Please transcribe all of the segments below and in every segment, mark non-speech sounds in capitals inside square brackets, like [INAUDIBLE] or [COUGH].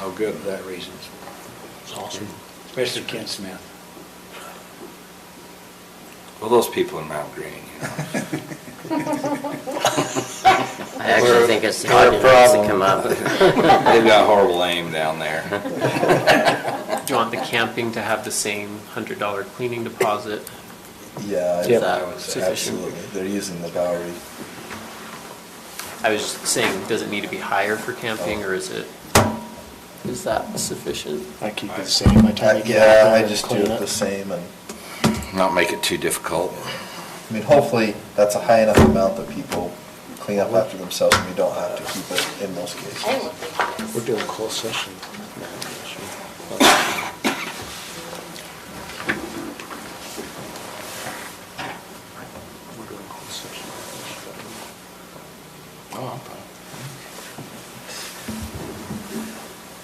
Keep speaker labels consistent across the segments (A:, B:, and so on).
A: Oh, good. For that reason. Especially Ken Smith.
B: Well, those people in Mount Green, you know.
C: I actually think it's the audience to come up.
B: [LAUGHS] They've got horrible aim down there. [LAUGHS]
D: Do you want the camping to have the same hundred dollar cleaning deposit?
E: Yeah,
C: Yep.
E: I- I would say
D: Sufficient.
E: absolutely. They're using the Bowery.
D: I was just saying, does it need to be higher for camping or is it, is that sufficient?
F: I keep it the same by the time
E: I-
F: you get
E: Uh, Yeah,
F: out
E: I
F: there and
E: just do
F: clean
E: it the
F: it.
E: same and,
B: Not make it too difficult.
E: I mean, hopefully, that's a high enough amount that people clean up after themselves and we don't have to keep it in most
G: I don't
E: cases.
G: think it is.
F: We're doing a closed session. We're doing closed session.
A: Oh, I'm fine.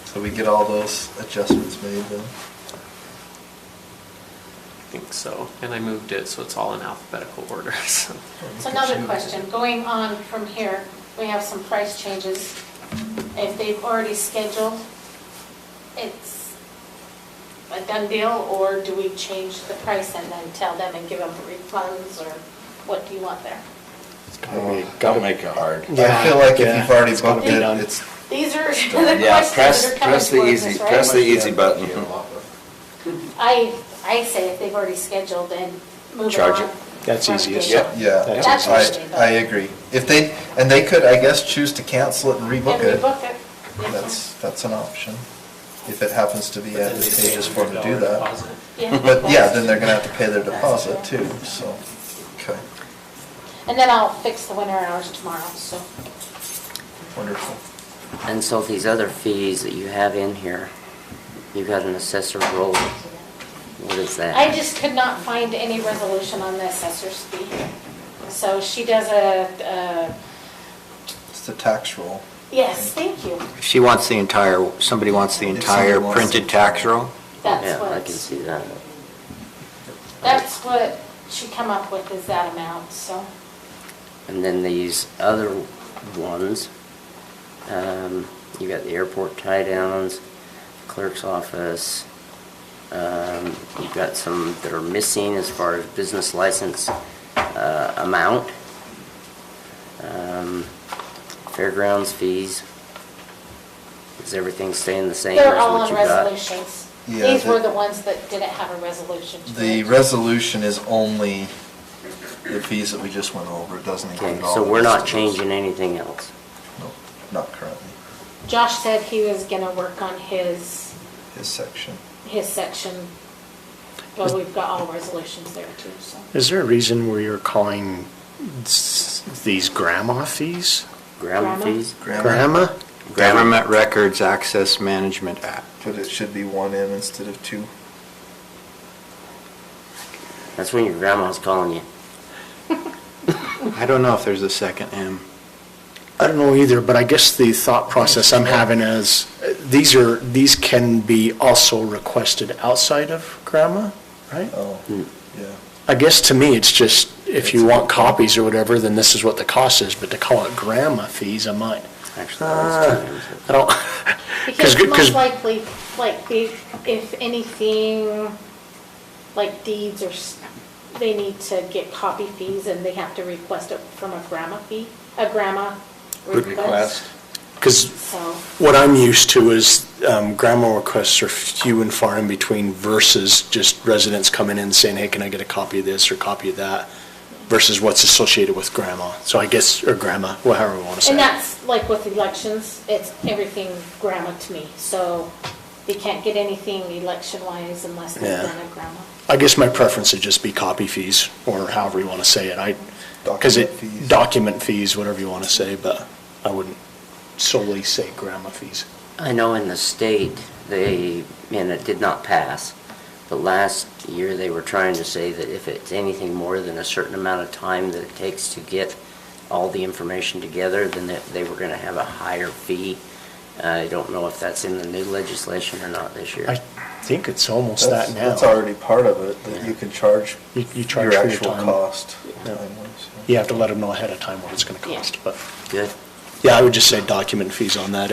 E: So we get all those adjustments made then?
D: I think so. And I moved it, so it's all in alphabetical order, [LAUGHS] so.
G: It's another question, going on from here, we have some price changes. If they've already scheduled, it's a done deal, or do we change the price and then tell them and give them refunds, or what do you want there?
B: Gotta
E: Oh.
B: make it hard.
E: I feel like if
F: Yeah,
E: you've already
F: it's gotta
E: booked
F: be
E: it,
F: done.
E: it's,
G: These are [LAUGHS] the questions
B: Yeah,
G: that
B: press,
G: are coming
B: press the
G: towards
B: easy,
G: us,
B: press the e-
G: right?
B: easy button.
F: Mm-hmm.
G: I, I say if they've already scheduled, then move it on.
B: Charge it.
F: That's
G: From
F: easiest.
G: here.
B: Yep.
E: yeah.
F: That's
G: That's
E: I,
G: easy.
E: I agree. If they, and they could, I guess, choose to cancel it and
G: And
E: rebook it.
G: rebook it. Yes,
E: That's, that's an option, if it happens to be
D: But then they say
E: advantageous for them to do
D: $100
E: that.
D: deposit.
G: yeah.
E: But yeah, then they're gonna have to pay their deposit too, so, okay,
G: And then I'll fix the winter hours tomorrow, so.
E: wonderful.
C: And so these other fees that you have in here, you've got an assessor role. What is that?
G: I just could not find any resolution on the assessor's fee. So she does a, uh,
E: It's the tax roll.
G: yes, thank you.
H: She wants the entire, somebody wants the
E: If
H: entire
E: somebody wants
H: printed
E: it.
H: tax roll?
G: That's
C: Yeah, I can
G: what,
C: see that.
G: that's what she come up with is that amount, so.
C: And then these other ones, um, you got the airport tie-downs, clerk's office. um, You've got some that are missing as far as business license uh, amount. um, Fairgrounds fees. Is everything staying the same?
G: They're
C: as
G: all
C: what
G: on
C: you got?
G: resolutions.
E: Yeah,
G: These were
E: the-
G: the ones that didn't have a resolution. to
E: The
G: it.
E: resolution is only the fees that we just went over, it doesn't
C: Okay,
E: include all.
C: so
E: the
C: we're not
E: rest of those.
C: changing anything else.
E: No, Not currently,
G: Josh said he was gonna work on his,
E: his section.
G: his section, but we've got all resolutions there too, so.
F: Is there a reason where you're calling s- these grandma fees?
C: Ground
G: Grandma?
C: fees?
E: Grandma.
F: Grandma?
H: Government Records Access Management Act.
E: But it should be one M instead of two.
C: That's when your grandma's calling you.
H: I don't know if there's a second M.
F: I don't know either, but I guess the thought process I'm having is, uh, these are, these can be also requested outside of grandma, right?
E: Oh,
C: Hmm.
E: yeah.
F: I guess to me, it's just, if you want copies or whatever, then this is what the cost is, but to call it grandma fees, I might, Uh,
C: Actually,
F: Ah.
C: that was two.
F: I don't,
G: Because
F: 'Cause- 'cause-
G: most likely, like, the- if anything, like deeds or, s- they need to get copy fees and they have to request it from a grandma fee, a grandma request.
F: because
G: So,
F: what I'm used to is um, grandma requests are few and far in between versus just residents coming in saying, hey, can I get a copy of this or copy of that? Versus what's associated with grandma. So I guess, or grandma, wha- however we want to say it.
G: and that's like with elections, it's everything grandma to me. So they can't get anything election-wise unless they've
F: Yeah.
G: done a grandma.
F: I guess my preference would just be copy fees, or however you want to say it, I, because it,
E: Document fees.
F: document fees, whatever you want to say, but I wouldn't solely say grandma fees.
C: I know in the state, they, and it did not pass, but last year they were trying to say that if it's anything more than a certain amount of time that it takes to get all the information together, then that they were going to have a higher fee. I don't know if that's in the new legislation or not this year.
F: I think it's almost that
E: That's-
F: now.
E: That's already part of it, that you can charge
F: You- you charge
E: your
F: for your
E: actual
F: time.
E: cost.
F: Yeah.
E: time-wise, yeah.
F: You have to let them know ahead of time what it's going to
G: Yeah.
F: cost, but,
C: Good?
F: yeah, I would just say document fees on that